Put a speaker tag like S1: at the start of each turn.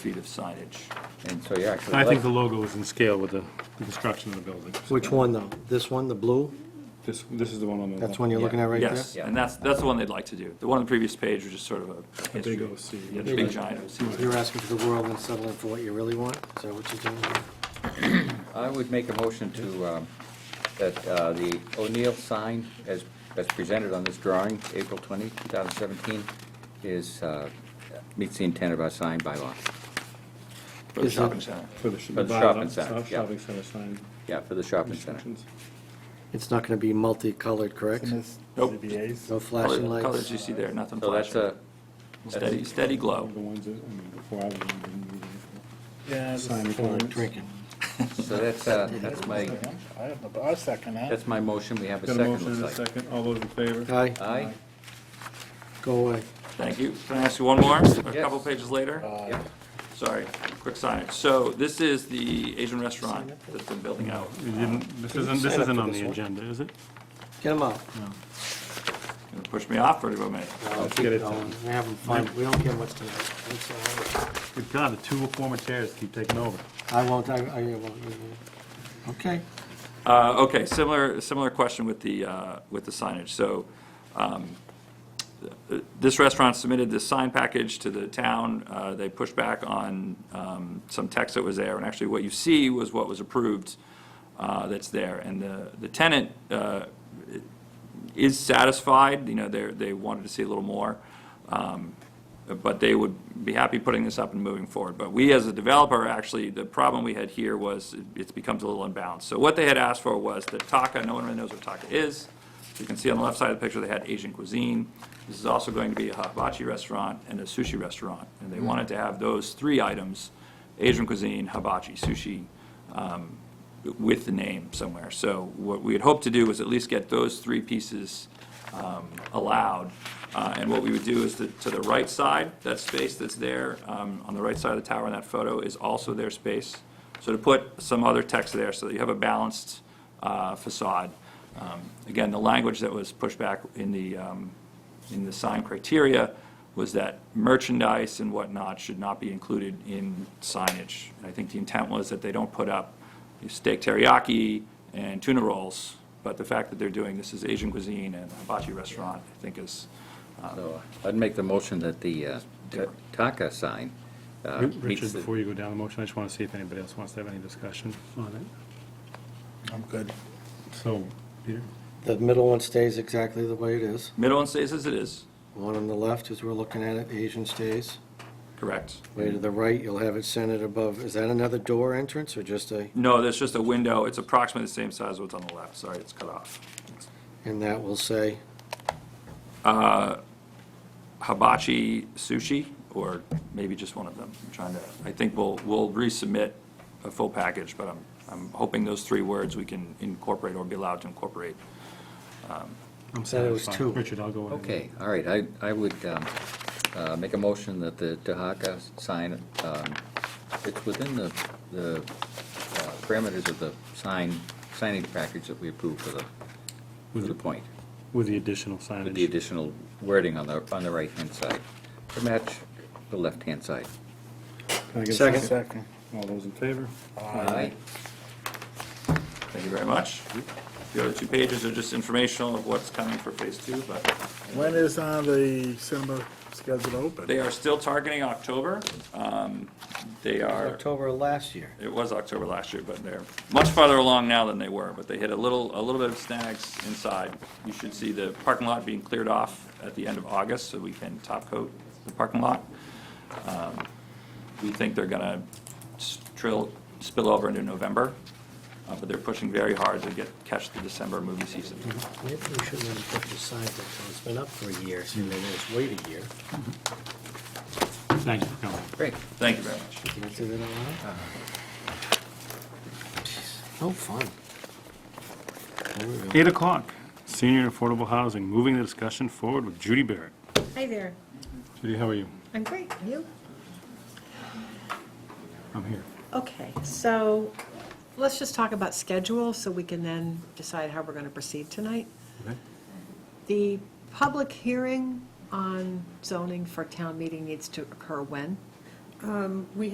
S1: feet of signage.
S2: And so you're actually.
S3: I think the logo is in scale with the the construction of the building.
S4: Which one though? This one, the blue?
S3: This, this is the one on the left.
S4: That's one you're looking at right there?
S1: Yes,
S2: there?
S1: and that's, that's the one they'd like to do. The one on the previous page was just sort of a
S3: A
S1: history.
S3: big OC.
S1: Yeah, the big giant OC.
S4: You're asking for the world and settling for what you really want? Is that what you're doing?
S2: I would make a motion to, um, that uh, the O'Neill sign, as, as presented on this drawing, April 20, 2017, is, uh, meets the intent of our sign bylaw.
S1: for the
S4: Is it-
S1: shopping center.
S3: For the. sh-
S2: For the
S3: bylaw,
S2: shopping center,
S3: shop-
S2: yeah.
S3: Shopping center sign.
S2: Yeah, for the shopping center.
S3: instructions.
S4: It's not gonna be multicolored, correct?
S1: Nope.
S4: No flashing
S1: Color- Colors
S4: lights?
S1: you see there, nothing
S2: So that's uh,
S1: flashing.
S2: a,
S1: Steady, steady
S2: Oh.
S3: The
S1: glow.
S3: ones that, I mean, before I was on, didn't need
S5: Yeah,
S3: any
S5: this
S3: sign
S5: is-
S3: requirements.
S4: Drinking.
S2: so that's, uh, that's my,
S5: I have the, I second that.
S2: that's my motion, we have a
S3: Got a
S2: second,
S3: motion and a
S2: looks like.
S3: second, all those in favor?
S4: Aye,
S2: Aye?
S4: go away.
S1: Thank you. Can I ask you one more? A couple pages later?
S3: Uh,
S2: Yep.
S1: Sorry, quick signage. So this is the Asian restaurant that's been building out.
S3: We didn't, this isn't, this
S4: sign up
S3: isn't
S4: for
S3: on
S4: this
S3: the
S4: one?
S3: agenda, is it?
S4: Get them out.
S1: Gonna Push me off for a minute.
S3: Let's get it done.
S4: We're having fun. We don't care much tonight. It's all right.
S3: Good God, the two former chairs keep taking over.
S4: I won't, I, I won't. Okay.
S1: Uh, Okay, similar, similar question with the, uh, with the signage. So um, th- this restaurant submitted this sign package to the town. Uh, They pushed back on um, some text that was there, and actually what you see was what was approved uh, that's there. And the the tenant uh, is satisfied, you know, they're, they wanted to see a little more. um, But they would be happy putting this up and moving forward. But we, as a developer, actually, the problem we had here was it- it becomes a little unbalanced. So what they had asked for was the Taka, no one really knows what Taka is. You can see on the left side of the picture, they had Asian cuisine. This is also going to be a hibachi restaurant and a sushi restaurant. And they wanted to have those three items, Asian cuisine, hibachi, sushi, um, with the name somewhere. So what we had hoped to do was at least get those three pieces um, allowed. Uh, And what we would do is that to the right side, that space that's there, um, on the right side of the tower in that photo is also their space. So to put some other text there so that you have a balanced uh, facade. Um, Again, the language that was pushed back in the, um, in the sign criteria was that merchandise and whatnot should not be included in signage. And I think the intent was that they don't put up steak teriyaki and tuna rolls, but the fact that they're doing, this is Asian cuisine and hibachi restaurant, I think is,
S2: So uh, I'd make the motion that the uh, Ta- Taka sign uh, meets
S3: Richard,
S2: the,
S3: before you go down the motion, I just want to see if anybody else wants to have any discussion on it.
S5: I'm good.
S3: So, Peter?
S4: The middle one stays exactly the way it is.
S1: middle and stays as it is,
S4: One on the left, as we're looking at it, Asian stays.
S1: correct?
S4: Way to the right, you'll have it centered above. Is that another door entrance or just a,
S1: No, there's just a window, it's approximately the same size as what's on the left, sorry, it's cut off.
S4: and that will say,
S1: Hibachi sushi, or maybe just one of them, I'm trying to, I think we'll, we'll resubmit a full package, but I'm, I'm hoping those three words we can incorporate or be allowed to incorporate.
S3: I'm
S4: Said it was
S3: satisfied.
S4: two.
S3: Richard, I'll go ahead.
S2: okay, all right, I, I would um, uh, make a motion that the Taka sign, um, it's within the, the uh, parameters of the sign, signage package that we approved for the, for the point,
S3: With the additional
S2: with the
S3: signage.
S2: additional wording on the, on the right-hand side, to match the left-hand side.
S3: Can I get a
S4: Second.
S5: Second.
S3: All those in favor?
S2: Aye.
S1: Thank you very much. The other two pages are just informational of what's coming for phase two, but
S5: When is uh, the cinema scheduled to open?
S1: They are still targeting October. Um, They are,
S4: October of last year.
S1: it was October last year, but they're much farther along now than they were, but they hit a little, a little bit of snags inside. You should see the parking lot being cleared off at the end of August, so we can top coat the parking lot. Um, We think they're gonna s- trill, spill over into November, uh, but they're pushing very hard to get, catch the December movie season.
S6: Maybe we shouldn't have put the sign up, so it's been up for a year, so maybe let's wait a year.
S3: Thank you for coming.
S2: Great.
S1: Thank you very much.
S4: Did I do that out
S3: Uh-huh.
S4: loud? No fun. There we go.
S3: Eight o'clock, senior affordable housing, moving the discussion forward with Judy Barrett.
S7: Hi there.
S3: Judy, how are you?
S7: I'm great. And You?
S3: I'm here.
S7: Okay, so let's just talk about schedule so we can then decide how we're going to proceed tonight.
S3: Okay.
S7: The public hearing on zoning for town meeting needs to occur when?
S8: We